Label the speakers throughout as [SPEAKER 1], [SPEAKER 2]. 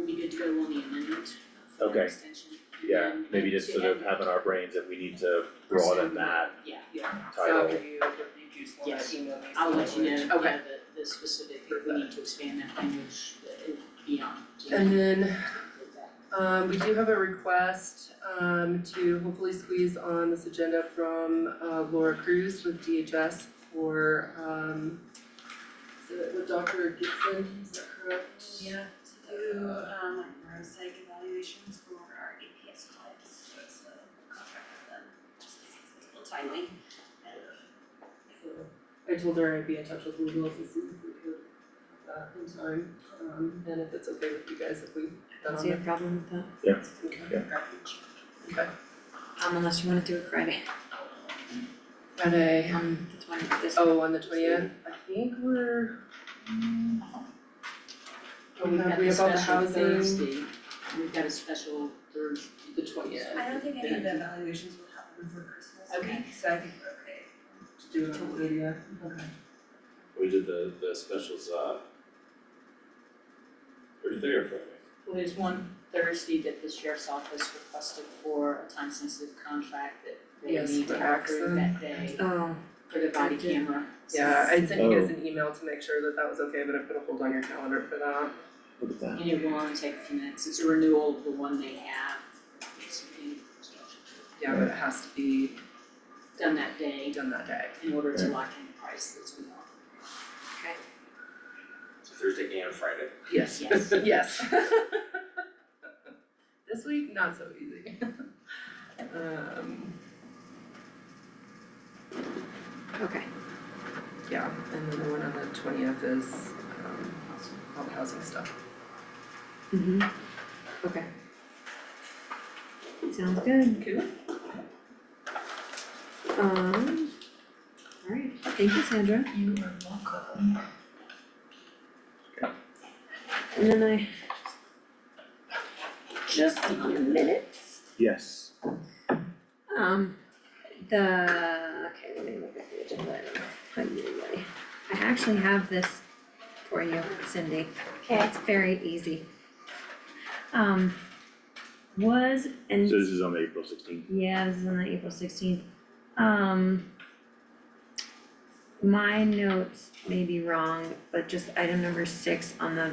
[SPEAKER 1] go on the amendment for
[SPEAKER 2] Okay.
[SPEAKER 1] extension. and
[SPEAKER 2] Yeah,
[SPEAKER 1] then
[SPEAKER 2] maybe just
[SPEAKER 1] to
[SPEAKER 2] sort of
[SPEAKER 1] add-
[SPEAKER 2] have in our brains that we need to broaden that
[SPEAKER 1] Yeah,
[SPEAKER 3] Yeah, so
[SPEAKER 2] title.
[SPEAKER 3] after you, you just wanna
[SPEAKER 1] Yes.
[SPEAKER 3] email me
[SPEAKER 1] I'll let you know,
[SPEAKER 3] some language.
[SPEAKER 1] yeah, the, the specific, if we
[SPEAKER 3] Got
[SPEAKER 1] need to expand that language uh, beyond. to-
[SPEAKER 3] Okay, and then,
[SPEAKER 1] with that.
[SPEAKER 3] um, we do have a request, um, to hopefully squeeze on this agenda from, uh, Laura Cruz with DHS for, um, is it with Dr. Gibson, is that correct?
[SPEAKER 4] Yeah, to do um like neuropsych evaluations for our APS clients, so it's a contract with them, just because it's a little timely. And uh,
[SPEAKER 3] So I told her I'd be in touch with legal to see if we could have that in time, um, and if it's okay with you guys if we um, put that on there.
[SPEAKER 5] problem with that,
[SPEAKER 3] Okay.
[SPEAKER 5] um, unless you wanna do it Friday,
[SPEAKER 3] Friday,
[SPEAKER 5] um, the twenty, this.
[SPEAKER 3] oh, on the twentieth, I think we're. mm, oh, we have, we have all the
[SPEAKER 1] We've got a special
[SPEAKER 3] housing,
[SPEAKER 1] Thursday, we've got a special Thursday, the twentieth.
[SPEAKER 4] I don't think any of the evaluations will happen before Christmas
[SPEAKER 1] Okay.
[SPEAKER 4] week, so I think we're okay.
[SPEAKER 3] to do it on the media, okay.
[SPEAKER 6] We did the, the specials, uh, Thursday or Friday?
[SPEAKER 1] Well, there's one Thursday that the sheriff's office requested for a time sensitive contract that they
[SPEAKER 3] Yes,
[SPEAKER 1] need
[SPEAKER 3] for
[SPEAKER 1] to have approved
[SPEAKER 3] Axon.
[SPEAKER 1] that day
[SPEAKER 5] Oh,
[SPEAKER 1] for the body
[SPEAKER 5] I did.
[SPEAKER 1] camera.
[SPEAKER 3] Yeah, I sent you guys an email to make sure that that was okay, but I put a hold on your calendar for that.
[SPEAKER 2] Look at that.
[SPEAKER 1] And it will only take a few minutes, it's a renewal of the one they have, it's being
[SPEAKER 3] Yeah, but it has to be
[SPEAKER 1] done that day
[SPEAKER 3] done that day.
[SPEAKER 1] in order to lock in the price that's we offer.
[SPEAKER 6] So Thursday and Friday.
[SPEAKER 3] Yes.
[SPEAKER 1] Yes.
[SPEAKER 3] Yes. This week, not so easy. Um,
[SPEAKER 5] okay,
[SPEAKER 3] yeah, and then the one on the twentieth is um all the housing stuff.
[SPEAKER 5] mm-hmm, okay. Sounds good,
[SPEAKER 3] Cool.
[SPEAKER 5] um, alright, thank you, Sandra.
[SPEAKER 3] You are welcome.
[SPEAKER 5] And then I just your minutes.
[SPEAKER 2] Yes.
[SPEAKER 5] Um, the, okay, let me look at the agenda item. Hi, you, buddy. I actually have this for you, Cindy. Okay. It's very easy. Um, was and.
[SPEAKER 2] So this is on the April sixteenth.
[SPEAKER 5] Yeah, this is on the April sixteenth. Um. My notes may be wrong, but just item number six on the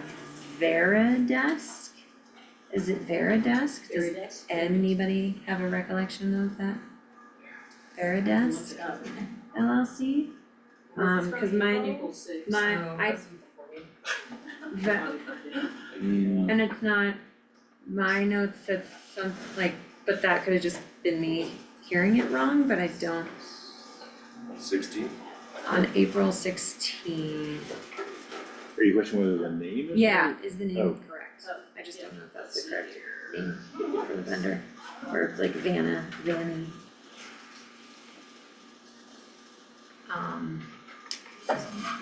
[SPEAKER 5] Vera desk. Is it Vera desk? Does
[SPEAKER 1] Very nice.
[SPEAKER 5] anybody have a recollection of that? Vera
[SPEAKER 1] Look
[SPEAKER 5] desk
[SPEAKER 1] it up.
[SPEAKER 5] LLC? Um, cause mine,
[SPEAKER 1] April sixth.
[SPEAKER 5] my- I- Ve- and it's not, my notes said some, like, but that could have just been me hearing it wrong, but I don't
[SPEAKER 6] uh, Sixteen?
[SPEAKER 5] on April sixteenth.
[SPEAKER 2] Are you questioning whether the name is?
[SPEAKER 5] Yeah, is the name
[SPEAKER 2] Oh.
[SPEAKER 5] correct? I just don't know if that's the correct name for the vendor, or it's like Vanna, Vanny. Um,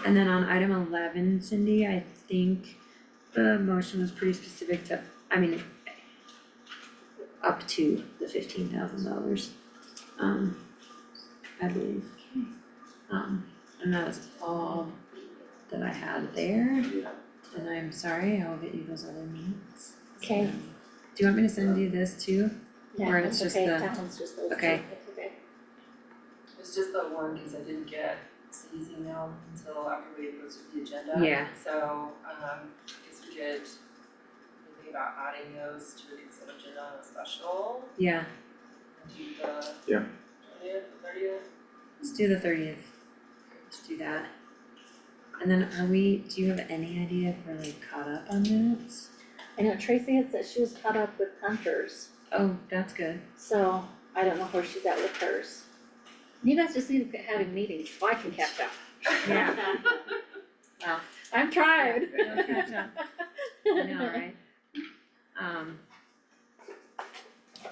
[SPEAKER 5] and then on item eleven, Cindy, I think the motion was pretty specific to, I mean, up to the fifteen thousand dollars, um, I believe. Um, and that is all that I had there. And I'm sorry, I'll get you those other minutes.
[SPEAKER 7] Okay.
[SPEAKER 5] Do you want me to send you this too? Or
[SPEAKER 7] Yeah,
[SPEAKER 5] it's
[SPEAKER 7] that's
[SPEAKER 5] just
[SPEAKER 7] okay,
[SPEAKER 5] the-
[SPEAKER 7] that one's just those two,
[SPEAKER 5] okay.
[SPEAKER 7] that's okay.
[SPEAKER 3] It's just the one, cause I didn't get Cindy's email until after we had posted the agenda.
[SPEAKER 5] Yeah.
[SPEAKER 3] So, um, I guess we could think about adding those to the consent agenda on a special,
[SPEAKER 5] Yeah,
[SPEAKER 3] and do uh, the
[SPEAKER 2] Yeah.
[SPEAKER 3] twentieth, thirtieth.
[SPEAKER 5] let's do the thirtieth. Let's do that. And then are we, do you have any idea if we're like caught up on minutes?
[SPEAKER 7] I know Tracy had said she was caught up with Hunter's,
[SPEAKER 5] Oh, that's good.
[SPEAKER 7] so I don't know where she's at with hers. You guys just need to quit having meetings, so I can catch up.
[SPEAKER 5] Yeah. Wow.
[SPEAKER 7] I'm trying.
[SPEAKER 5] I know, right? Um.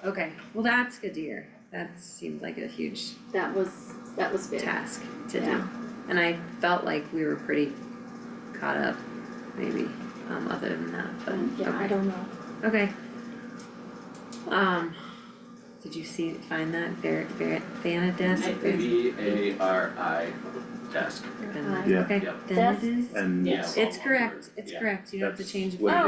[SPEAKER 5] Okay, well, that's good to hear. That seemed like a huge
[SPEAKER 7] That was, that was big.
[SPEAKER 5] task to do.
[SPEAKER 7] Yeah.
[SPEAKER 5] And I felt like we were pretty caught up, maybe, um, other than that, but, okay.
[SPEAKER 7] Yeah, I don't know.
[SPEAKER 5] Okay. Um, did you see, find that Ver- Ver- Vanadis?
[SPEAKER 6] V A R I desk.
[SPEAKER 5] Van-
[SPEAKER 2] Yeah.
[SPEAKER 5] Okay,
[SPEAKER 6] Yeah.
[SPEAKER 5] Vanadis?
[SPEAKER 2] And
[SPEAKER 6] Yeah.
[SPEAKER 5] It's correct, it's
[SPEAKER 6] Yeah.
[SPEAKER 5] correct, you don't have to
[SPEAKER 2] That's
[SPEAKER 5] change it.
[SPEAKER 2] what it
[SPEAKER 7] Oh,